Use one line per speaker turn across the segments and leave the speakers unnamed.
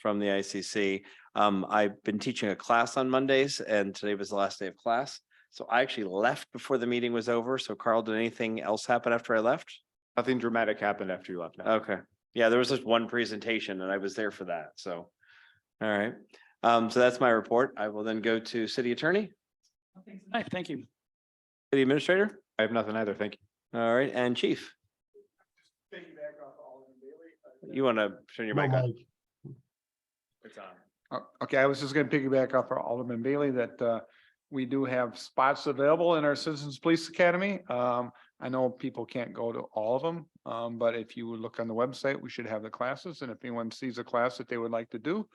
from the ICC. Um, I've been teaching a class on Mondays and today was the last day of class. So I actually left before the meeting was over. So Carl, did anything else happen after I left?
Nothing dramatic happened after you left. no.
Okay, yeah, there was just one presentation and I was there for that, so. All right, um, so that's my report. I will then go to city attorney,
Oh,
Hi, thank you.
city administrator,
I have nothing either. Thank you.
all right, and chief. You want to turn your mic on?
It's on.
Uh, Okay, I was just gonna piggyback off our Alderman Bailey that uh we do have spots available in our Citizens Police Academy. Um, I know people can't go to all of them, um, but if you would look on the website, we should have the classes. And if anyone sees a class that they would like to do,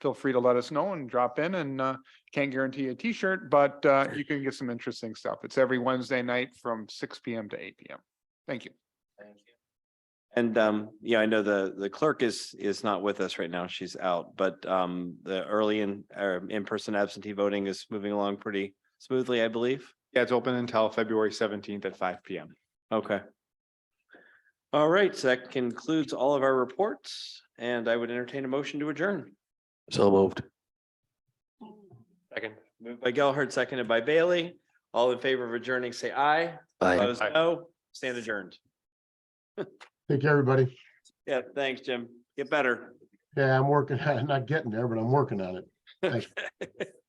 feel free to let us know and drop in and uh can't guarantee a T-shirt, but uh you can get some interesting stuff. It's every Wednesday night from six PM to eight PM. Thank you.
And um, yeah, I know the the clerk is is not with us right now. She's out, but um, the early in or in-person absentee voting is moving along pretty smoothly, I believe.
Yeah, it's open until February seventeenth at five P M.
Okay. All right, so that concludes all of our reports, and I would entertain a motion to adjourn.
So moved.
Second.
Moved by Gelhardt, seconded by Bailey. All in favor of adjourning, say aye.
Aye.
Opposed, no. Stand adjourned.
Thank you, everybody.
Yeah, thanks, Jim. Get better.
Yeah, I'm working, not getting there, but I'm working on it.